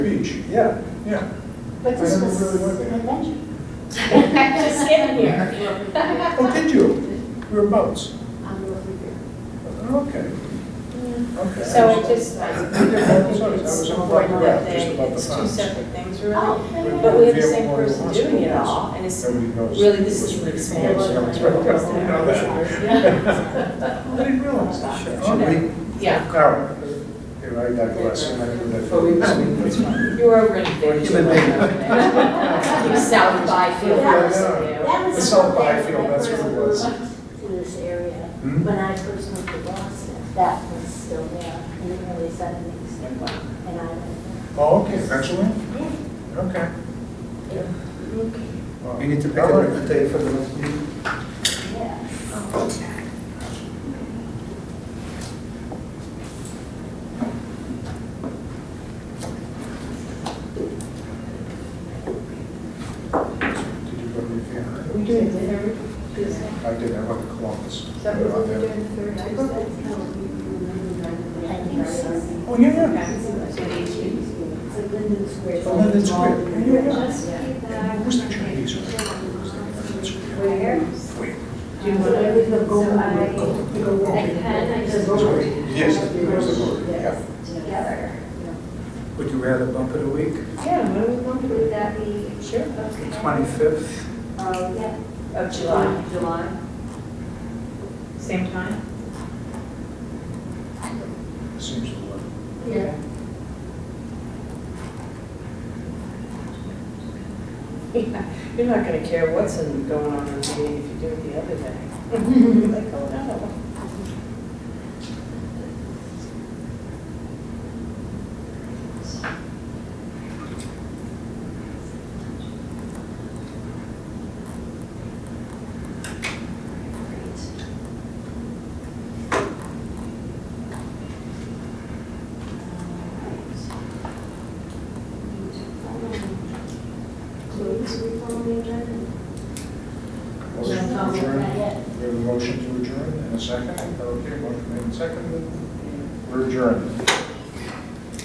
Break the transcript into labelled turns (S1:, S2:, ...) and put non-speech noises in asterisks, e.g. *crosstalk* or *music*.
S1: beach.
S2: Yeah,
S1: Yeah.
S3: But this
S1: I never
S3: was
S1: really went
S3: an
S1: there.
S3: adventure. Just getting here.
S1: Oh, did you? We're boats.
S3: I'm looking here.
S1: Okay, okay.
S4: So it just, I think it's important that they,
S1: Just about the
S4: it's two
S1: funds.
S4: separate things really.
S3: Oh,
S4: But we have the
S1: Yeah,
S4: same
S1: well, it
S4: person
S1: was
S4: doing it
S1: cool.
S4: all, and it's,
S1: Nobody knows.
S4: really, this is an expanded
S1: Yeah, so it's
S4: line.
S1: right. You know that. I didn't realize that. Okay.
S4: yeah,
S1: Carol, you're right, that glass, and I do that.
S2: Well, we- that's fine.
S4: you were really big.
S2: Human
S4: You South Byfield
S3: Yeah.
S4: person, you.
S3: That was
S1: It's all
S3: something
S1: Byfield,
S3: that
S1: that's what it
S3: when I
S1: was.
S3: worked In this area,
S1: Hmm?
S3: when I first moved to Boston, that was still there in the early seventies. And I went
S1: Oh, okay, actually,
S3: there.
S1: okay.
S3: Yeah.
S1: Wow.
S2: we need to pick
S1: All right.
S2: a day for the next meeting.
S3: Yeah.
S1: Did you go to the theater?
S4: We do it every Tuesday.
S1: I did, I went to Columbus.
S4: Is that what we're doing third Tuesday?
S3: I think so.
S1: Oh, yeah, yeah.
S3: It's a Linden Square.
S1: Oh, Linden Square. Yeah, yeah, yeah.
S3: Just keep that.
S1: Who's the Chinese? one?
S3: Where?
S1: Wait.
S3: Do you want to leave a gold? I can, I just.
S1: Yes, there's a word, yeah.
S3: Together.
S2: Would you rather bump it a week,
S4: Yeah, when we want to,
S3: Would that be?
S4: sure,
S3: okay?
S2: 25th?
S3: Um, yeah.
S4: of July,
S3: July.
S4: same *laughs* time.
S1: Seems to work.
S3: Yeah.
S4: You're not gonna care what's in- going on in the meeting if you do it the other *laughs* day. Like, oh, no.
S3: Please, we follow the agenda.
S1: Motion to
S3: No,
S1: adjourn.
S3: not yet.
S1: We have a motion to adjourn and a second. Okay, motion made and seconded. We're adjourned.